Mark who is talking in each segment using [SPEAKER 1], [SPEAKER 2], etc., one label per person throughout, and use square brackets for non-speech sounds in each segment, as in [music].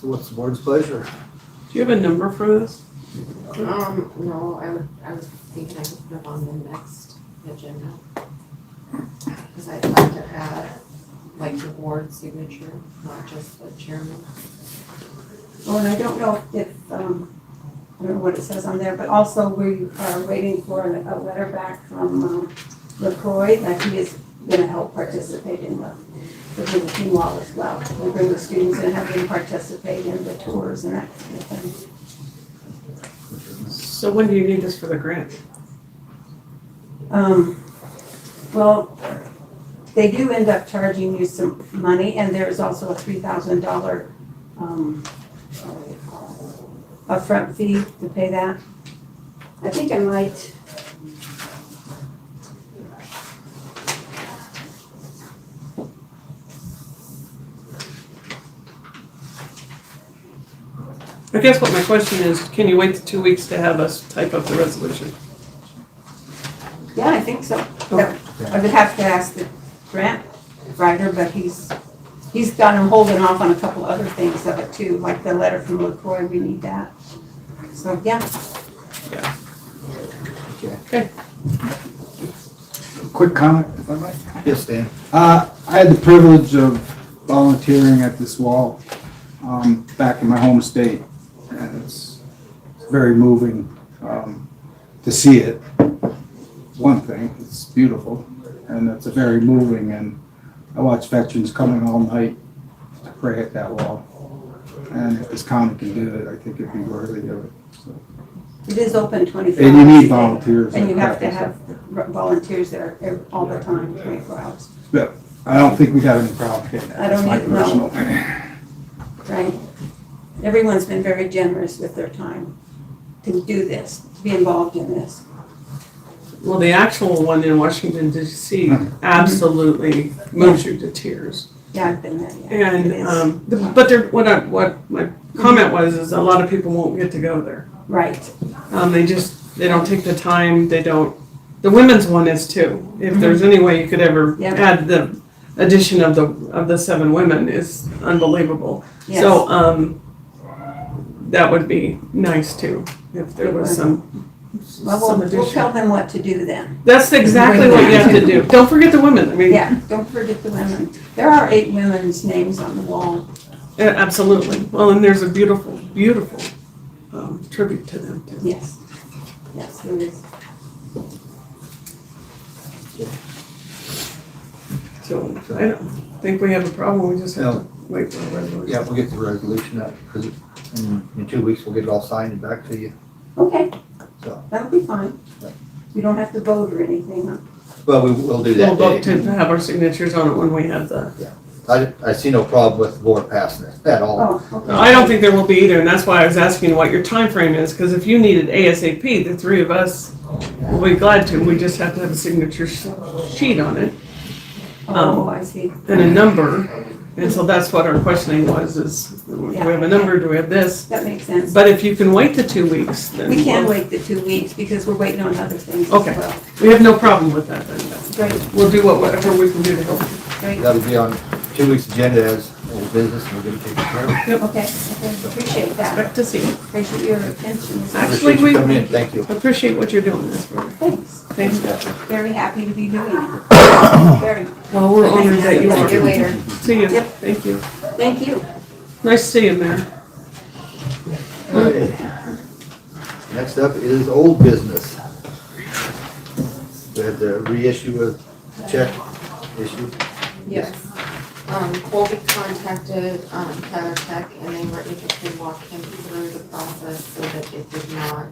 [SPEAKER 1] So what's the board's pleasure?
[SPEAKER 2] Do you have a number for this?
[SPEAKER 3] Um, no, I would, I was thinking I could put it on the next agenda. Cause I'd like to add, like, the board signature, not just the chairman.
[SPEAKER 4] Well, and I don't know if, um, I don't know what it says on there, but also we are waiting for a a letter back from, um, LaCroy that he is gonna help participate in the, the Hurricane Wall as well. We bring the students and have them participate in the tours and that kind of thing.
[SPEAKER 2] So when do you need this for the grant?
[SPEAKER 4] Um, well, they do end up charging you some money and there is also a three thousand dollar, um, upfront fee to pay that.
[SPEAKER 5] I think I might.
[SPEAKER 2] I guess what my question is, can you wait the two weeks to have us type up the resolution?
[SPEAKER 4] Yeah, I think so. Yeah, I would have to ask the grant writer, but he's, he's got him holding off on a couple other things of it too, like the letter from LaCroy, we need that. So, yeah,
[SPEAKER 6] Quick comment, if I might.
[SPEAKER 1] Yes, Dan?
[SPEAKER 6] Uh, I had the privilege of volunteering at this wall um, back in my home state, and it's very moving um, to see it. One thing, it's beautiful, and it's very moving, and I watch veterans coming all night to pray at that wall. And if this county can do it, I think it'd be worthy of it. so.
[SPEAKER 4] it is open twenty-four hours.
[SPEAKER 6] And you
[SPEAKER 4] a
[SPEAKER 6] need
[SPEAKER 4] day.
[SPEAKER 6] volunteers.
[SPEAKER 4] And you have to have volunteers there ev- all the time, twenty-four hours,
[SPEAKER 6] I don't think we have any problem getting that.
[SPEAKER 4] I don't
[SPEAKER 6] That's my
[SPEAKER 4] need- no.
[SPEAKER 6] personal opinion.
[SPEAKER 4] right? Everyone's been very generous with their time to do this, to be involved in this.
[SPEAKER 2] Well, the actual one in Washington DC absolutely moves you to tears.
[SPEAKER 4] Yeah, I've been there, yeah.
[SPEAKER 2] And,
[SPEAKER 4] It is.
[SPEAKER 2] um, the- but there, what I, what my comment was, is a lot of people won't get to go there.
[SPEAKER 4] Right,
[SPEAKER 2] Um, they just, they don't take the time, they don't, the women's one is too. If there's any way you could ever
[SPEAKER 4] Yep.
[SPEAKER 2] add the addition of the, of the seven women is unbelievable.
[SPEAKER 4] yes.
[SPEAKER 2] So, um, that would be nice too, if there was some,
[SPEAKER 4] Well,
[SPEAKER 2] some
[SPEAKER 4] we'll, we'll tell
[SPEAKER 2] addition.
[SPEAKER 4] them what to do then.
[SPEAKER 2] That's exactly what you have to do. Don't forget the women, I mean, uh,
[SPEAKER 4] Yeah, don't forget the women. There are eight women's names on the wall.
[SPEAKER 2] absolutely. Well, and there's a beautiful, beautiful, um, tribute to them too.
[SPEAKER 4] Yes. Yes, there is.
[SPEAKER 2] So I don't think we have a problem, we just have to wait for a
[SPEAKER 1] Yeah,
[SPEAKER 2] resolution.
[SPEAKER 1] we'll get the resolution out, because in in two weeks, we'll get it all signed and back to you.
[SPEAKER 4] Okay,
[SPEAKER 1] So-
[SPEAKER 4] that'll be fine. You don't have to vote or anything. huh?
[SPEAKER 1] Well, we will do
[SPEAKER 2] We'll
[SPEAKER 1] that
[SPEAKER 2] vote
[SPEAKER 1] day.
[SPEAKER 2] to have our signatures on it when we have the,
[SPEAKER 1] I, I see no problem with the board passing it at all.
[SPEAKER 4] Oh, okay.
[SPEAKER 2] I don't think there will be either, and that's why I was asking what your time frame is, because if you needed ASAP, the three of us will be glad to, we just have to have a signature sh- sheet on it
[SPEAKER 4] Oh, I see.
[SPEAKER 2] and a number. And so that's what our questioning was, is do we have a number, do we have this?
[SPEAKER 4] That makes sense.
[SPEAKER 2] But if you can wait the two weeks, then.
[SPEAKER 4] We can
[SPEAKER 2] we'll-
[SPEAKER 4] wait the two weeks because we're waiting on other things as
[SPEAKER 2] Okay.
[SPEAKER 4] well.
[SPEAKER 2] We have no problem with that then.
[SPEAKER 4] Great,
[SPEAKER 2] We'll do what- whatever we can do to help.
[SPEAKER 4] great.
[SPEAKER 1] That'll be on two weeks' agenda as old business, and we'll get it taken care of.
[SPEAKER 4] Okay, okay, appreciate that.
[SPEAKER 2] Expect to see. it.
[SPEAKER 4] Appreciate your attention.
[SPEAKER 2] Actually,
[SPEAKER 1] Appreciate you
[SPEAKER 2] we-
[SPEAKER 1] coming in, thank you.
[SPEAKER 2] Appreciate what you're doing this for.
[SPEAKER 4] Thanks.
[SPEAKER 2] Thanks.
[SPEAKER 4] Very happy to be doing it. [coughs] Very.
[SPEAKER 2] Well, we're honored that you
[SPEAKER 3] Thank you
[SPEAKER 2] are.
[SPEAKER 3] later.
[SPEAKER 2] See you.
[SPEAKER 4] Yep.
[SPEAKER 2] Thank you.
[SPEAKER 4] Thank you.
[SPEAKER 2] Nice to see you, Mayor.
[SPEAKER 4] [laughs]
[SPEAKER 1] Okay. Next up is old business. We had the reissue of check issue.
[SPEAKER 3] Yes. Um, Colby contacted, um, Tyler Tech and they were able to walk him through the process so that it did not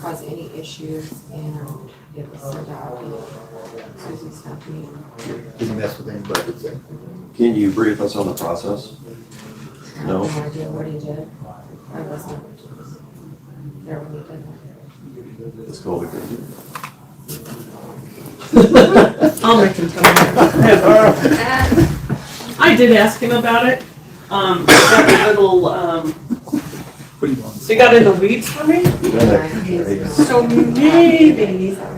[SPEAKER 3] cause any issues and it was sent out. and Susie's company.
[SPEAKER 1] Didn't mess with anybody.
[SPEAKER 7] Can you brief us on the process?
[SPEAKER 3] I have
[SPEAKER 7] No.
[SPEAKER 3] No idea what he did. I wasn't there when he did that.
[SPEAKER 7] It's called a.
[SPEAKER 2] I'll make him tell you. I did ask him about it. Um, got a little, um,
[SPEAKER 1] What do you want?
[SPEAKER 2] they got in the weeds for me,
[SPEAKER 3] Mm-hmm. Nine days ago.
[SPEAKER 2] so maybe